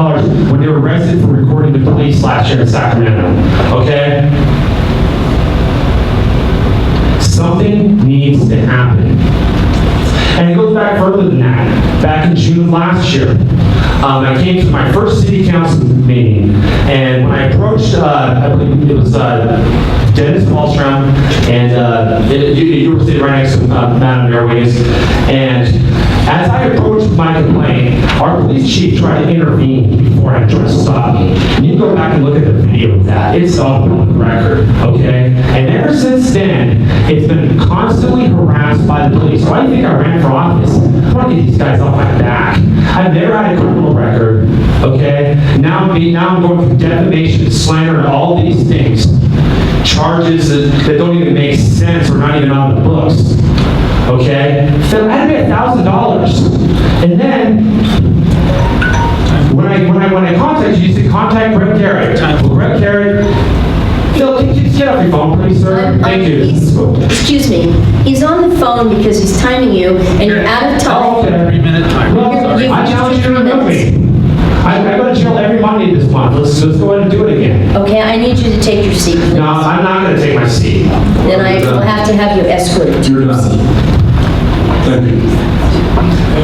dollars when they were arrested for recording the police last year in Sacramento, okay? Something needs to happen. And it goes back further than that. Back in June of last year, um, I came to my first city council meeting, and when I approached, uh, I believe it was uh, Dennis Paulstrom, and uh, it- you, you were sitting right next to uh, Madam Mayor Wiggins, and as I approached my complaint, our police chief tried to intervene before I tried to stop me. And you go back and look at the video of that, it's all public record, okay? And ever since then, it's been constantly harassed by the police. Why do you think I ran for office? I want to get these guys off my back. I've never had a criminal record, okay? Now I'm being, now I'm going for defamation, slander, and all these things. Charges that that don't even make sense or not even on the books, okay? So I had to pay a thousand dollars. And then, when I, when I, when I contact you, you say contact Greg Garrett. Well, Greg Garrett, Phil, can you just get off your phone, please, sir? Um, Thank you. he's- Excuse me, he's on the phone because he's timing you, and you're out Oh, of time. okay. Three-minute timer. Well, You- you- I challenge you to remove me. I, I go to jail every Monday this month. Let's, let's go ahead and do it again. Okay, I need you to take your seat, No, please. I'm not gonna take my seat. Then I will have to have you escorted to your seat. Thank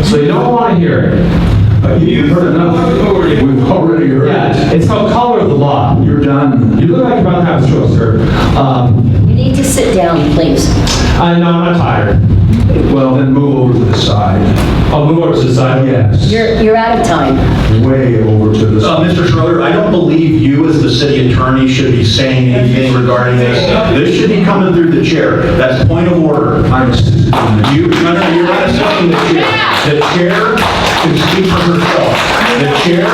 you. So you don't wanna hear it. You've heard enough. We've already heard. Yeah, it's called color of the law. You're done. You look like you're about to have a stroke, sir. Um, You need to sit down, please. I know, I'm not tired. Well, then move over to the side. I'll move over to the side. Yes. You're, you're out of time. Way over to the Uh, side. Mr. Schroeder, I don't believe you as the city attorney should be saying anything regarding this. This should be coming through the chair. That's point of order. I'm assisting you. You, no, no, you're not assisting the chair. The chair can speak for herself. The chair,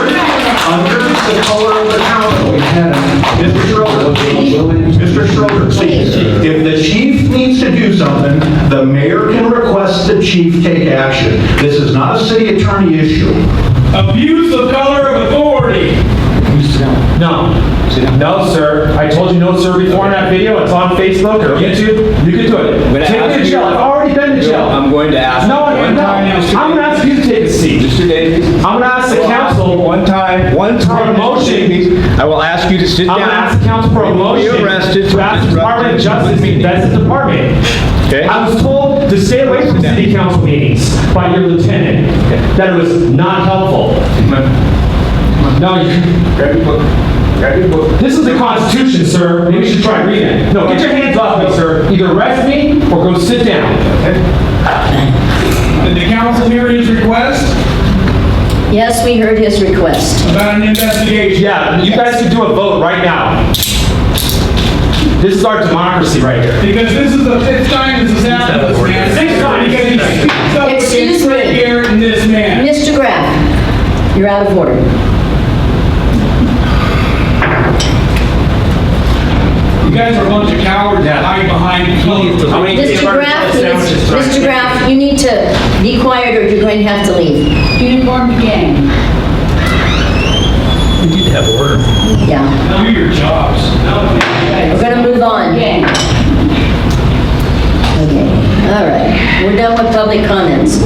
under the color of the council, We had a- Mr. Schroeder, Mr. Schroeder, please, if the chief needs to do something, the mayor can request the chief take action. This is not a city attorney issue. Abuse of color of authority. No. No, sir. I told you no, sir, before in that video. It's on Facebook or YouTube. You can do I'm gonna it. Take me ask to you- jail. I've already been to jail. I'm going to ask. No, no, one no. time now, Mr. I'm gonna ask you to take a seat. Mr. Davies. I'm gonna ask the council, One time, one time. Mr. motion. Davies, I will ask you to sit I'm down. gonna ask the council for a You will be motion arrested to for ask the Department of disrupting Justice, public meeting. that's the department. Okay. I was told to stay away from down. city council meetings by your lieutenant, that it was not helpful. No, you- Grab your book. Grab your book. this is the Constitution, sir, maybe you should try reading it. No, get your hands off me, sir, either arrest me or go sit down. Did the council hear his request Yes, we heard his request. about an investigation? Yeah, you guys can do a vote right now. This is our democracy right here. Because this is the fifth time this has happened to this man. Sixth time. Because he speaks up Excuse against Greg me. Garrett and this man. Mr. Graff, you're out of order. You guys are a bunch of cowards that hide behind closed doors. Mr. Graff, needs- Mr. Graff, you need to be quiet or you're going to have to leave. Uniformed gang. Yeah, Do your jobs. we're gonna move on. Gang. Okay, all right. We're done with public comments.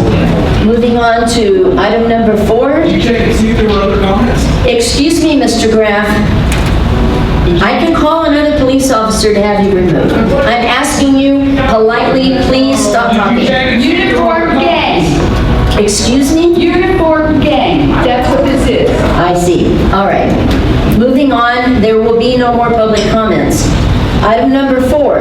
Moving on to item number four. You check and see if there were other comments? Excuse me, Mr. Graff. I can call another police officer to have you removed. I'm asking you politely, please stop Did you talking. check and see if there were other Uniformed comments? gang. Excuse me? Uniformed gang. That's what this is. I see. All right. Moving on, there will be no more public comments. Item number four.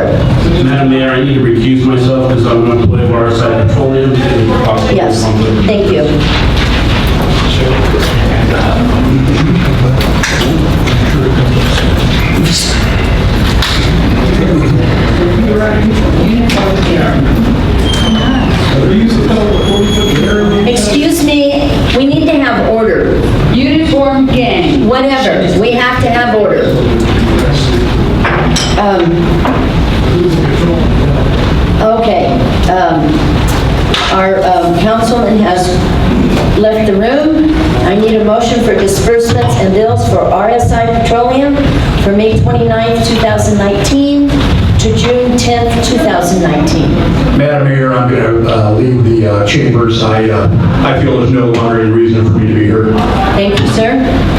Madam Mayor, I need to recuse myself because I'm going to play Waterside Petroleum. and possibly Yes, conflict. thank you. Excuse me, we need to have order. Uniformed gang. Whatever, we have to have order. Um, Okay, um, our um, councilman has left the room. I need a motion for disbursements and bills for RSI Petroleum for May 29, 2019, to to June 10th, 2019. Madam Mayor, I'm going to leave uh, the uh, chambers. I uh, I feel there's no longer any reason for me to be here. Thank you, sir.